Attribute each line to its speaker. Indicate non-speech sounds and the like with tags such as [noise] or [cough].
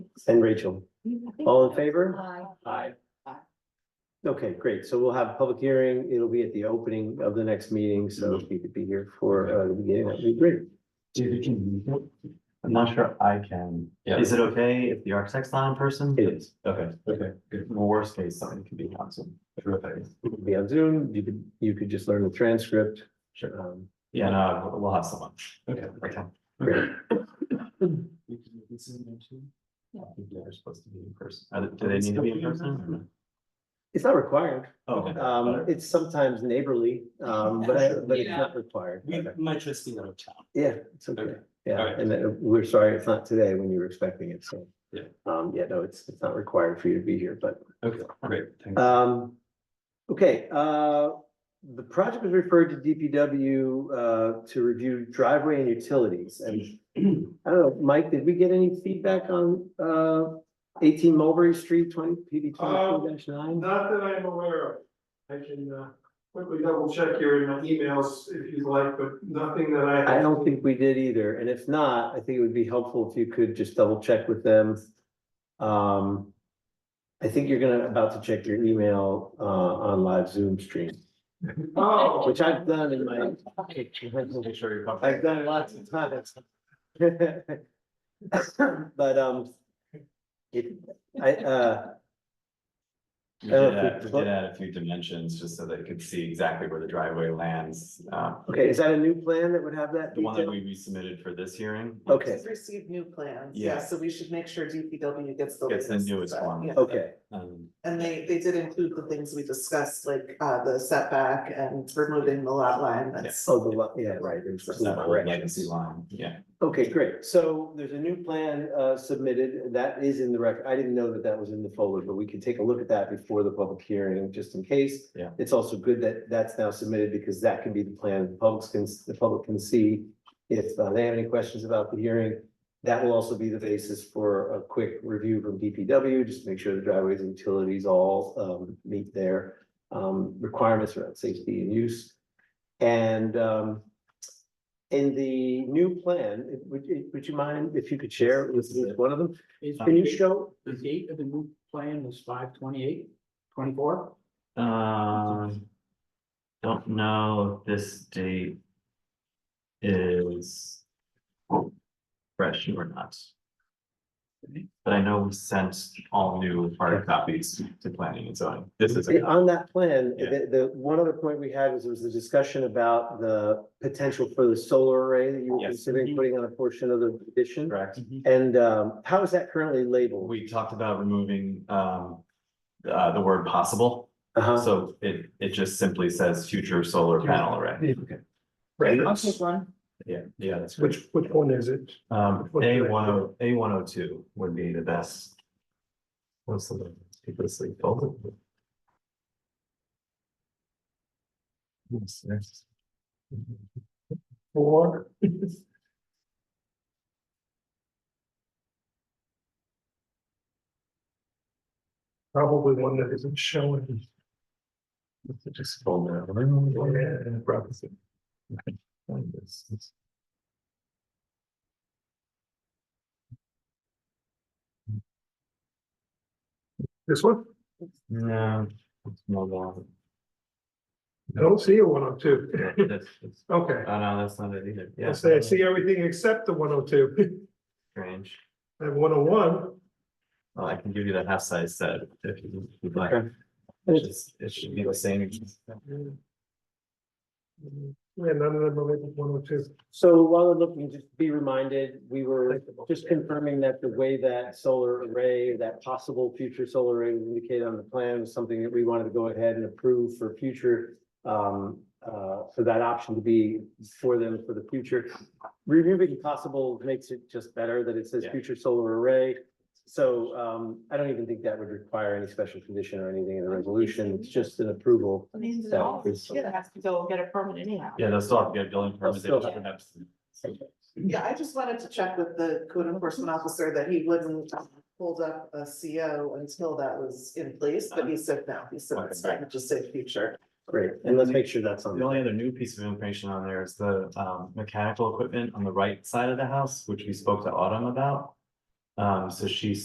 Speaker 1: and Rachel. All in favor?
Speaker 2: Aye.
Speaker 1: Aye.
Speaker 2: Aye.
Speaker 1: Okay, great. So we'll have a public hearing. It'll be at the opening of the next meeting, so if you could be here for uh, the beginning, that'd be great.
Speaker 3: Dude, you can, I'm not sure I can.
Speaker 4: Yeah.
Speaker 3: Is it okay if the architect's not in person?
Speaker 1: It is.
Speaker 3: Okay,
Speaker 4: Okay, good.
Speaker 3: worst case, something can be awesome.
Speaker 4: Terrific.
Speaker 1: You could Be on Zoom. You could, you could just learn the transcript.
Speaker 4: Sure.
Speaker 1: Um,
Speaker 3: Yeah, no, we'll- we'll have someone.
Speaker 4: Okay.
Speaker 3: Okay.
Speaker 1: Great.
Speaker 4: [coughs] We can do this in there too.
Speaker 3: I think They're supposed to be in person. Are they- Do they need to be in person?
Speaker 1: It's not required.
Speaker 3: Oh, okay.
Speaker 1: Um, it's sometimes neighborly,
Speaker 4: [laughs]
Speaker 1: um, but, I- but it's not required.
Speaker 4: We might just be out of town.
Speaker 1: Yeah, it's okay.
Speaker 4: Okay. All
Speaker 1: Yeah,
Speaker 4: right.
Speaker 1: and then we're sorry it's not today when you were expecting it, so.
Speaker 4: Yeah.
Speaker 1: Um, yeah, no, it's, it's not required for you to be here, but
Speaker 4: Okay, great. Thank you.
Speaker 1: Um, okay, uh, the project was referred to DPW, uh, to review driveway and utilities and. [clears throat] I don't know, Mike, did we get any feedback on, uh, eighteen Mulberry Street, twenty, PB
Speaker 4: Um,
Speaker 1: twenty-two nine?
Speaker 5: Not that I'm aware of. I can uh, quickly double check here in my emails if you'd like, but nothing that I.
Speaker 1: I don't think we did either, and if not, I think it would be helpful if you could just double check with them. Um, I think you're gonna, about to check your email, uh, on live Zoom stream,
Speaker 5: Oh,
Speaker 1: which I've done in my.
Speaker 3: Just Make sure you're. comfortable.
Speaker 1: I've done it lots of times. [laughs] But, um, it, I, uh,
Speaker 3: We
Speaker 1: I don't
Speaker 3: did add, we
Speaker 1: think-
Speaker 3: did add a few dimensions just so they could see exactly where the driveway lands. Uh,
Speaker 1: okay, is that a new plan that would have that?
Speaker 3: the one that
Speaker 1: detail?
Speaker 3: we resubmitted for this hearing.
Speaker 1: Okay,
Speaker 2: Received new plans,
Speaker 3: Yeah.
Speaker 2: yeah, so we should make sure DPW gets the.
Speaker 3: Gets the
Speaker 2: latest,
Speaker 3: newest
Speaker 2: uh,
Speaker 3: one.
Speaker 2: yeah.
Speaker 1: okay,
Speaker 3: Um,
Speaker 2: And they, they did include the things we discussed, like, uh, the setback and removing the lot line, that's.
Speaker 1: oh, the, lo- yeah, right. there's
Speaker 3: Just
Speaker 1: two
Speaker 3: that whole
Speaker 1: corrections.
Speaker 3: legacy line, yeah.
Speaker 1: Okay, great, so there's a new plan, uh, submitted, that is in the record, I didn't know that that was in the folder, but we can take a look at that before the public hearing, just in case.
Speaker 3: Yeah.
Speaker 1: It's also good that that's now submitted, because that can be the plan, the public can, the public can see if uh, they have any questions about the hearing. That will also be the basis for a quick review from DPW, just to make sure the driveways and utilities all um meet their um requirements around safety and use. And um in the new plan, it- would you, would you mind if you could share with with one of them?
Speaker 6: Is
Speaker 1: Can you
Speaker 6: the-
Speaker 1: show?
Speaker 6: the date of the new plan was five twenty-eight, twenty-four?
Speaker 3: Um, don't know if this date is fresh or not. But I know we sent all new hard copies to planning and zoning. This is, a-
Speaker 1: On that plan,
Speaker 3: Yeah.
Speaker 1: the the one other point we had was there was a discussion about the potential for the solar array that you were
Speaker 3: Yes. Mm-hmm.
Speaker 1: considering putting on a portion of the addition.
Speaker 3: correct?
Speaker 1: And um how is that currently labeled?
Speaker 3: We talked about removing, um, uh, the word possible.
Speaker 1: Uh-huh.
Speaker 3: So it, it just simply says future solar panel array.
Speaker 6: I'll take one.
Speaker 3: Yeah, yeah, that's great.
Speaker 5: Which, which one is it?
Speaker 3: Um,
Speaker 5: What
Speaker 3: A
Speaker 5: do they
Speaker 3: one oh, A one oh two would be the best. What's the, people sleep over? [laughs] Yes, yes.
Speaker 5: Four. [laughs] Probably one that isn't showing.
Speaker 3: Just scroll down. Yeah, grab this. Okay, find this. This-
Speaker 5: This one?
Speaker 3: No. it's not that.
Speaker 5: I don't see a one oh two.
Speaker 3: Yeah, that's- that's-
Speaker 5: Okay,
Speaker 3: Oh, no, that's not it either. Yeah.
Speaker 5: I say I see everything except the one oh two. [laughs]
Speaker 3: Strange.
Speaker 5: I have one oh one.
Speaker 3: Well, I can give you the half size set if you would like.
Speaker 1: Okay.
Speaker 3: It's just- It should be the same.
Speaker 5: Yeah, none of them are labeled one oh two.
Speaker 1: So while we're looking, just be reminded, we were just confirming that the way that solar array, that possible future solar array was indicated on the plan was something that we wanted to go ahead and approve for future. Um, uh, for that option to be for them for the future. Removing possible makes it just better that it says
Speaker 3: Yeah.
Speaker 1: future solar array. So, um, I don't even think that would require any special condition or anything in the resolution. It's just an approval.
Speaker 2: Means
Speaker 1: it all.
Speaker 2: yeah, has to go get a permit anyhow.
Speaker 3: Yeah, they'll still have to get a building permit. they
Speaker 1: still
Speaker 3: just
Speaker 1: have-
Speaker 3: would have to-
Speaker 2: Yeah, I just wanted to check with the code enforcement officer that he wouldn't um, hold up a CO until that was in place, but he said no, he said it's fine, just say future.
Speaker 1: Great. And let's make sure that's on.
Speaker 3: The only other new piece of information on there is the um mechanical equipment on the right side of the house, which we spoke to Autumn about. Um, so she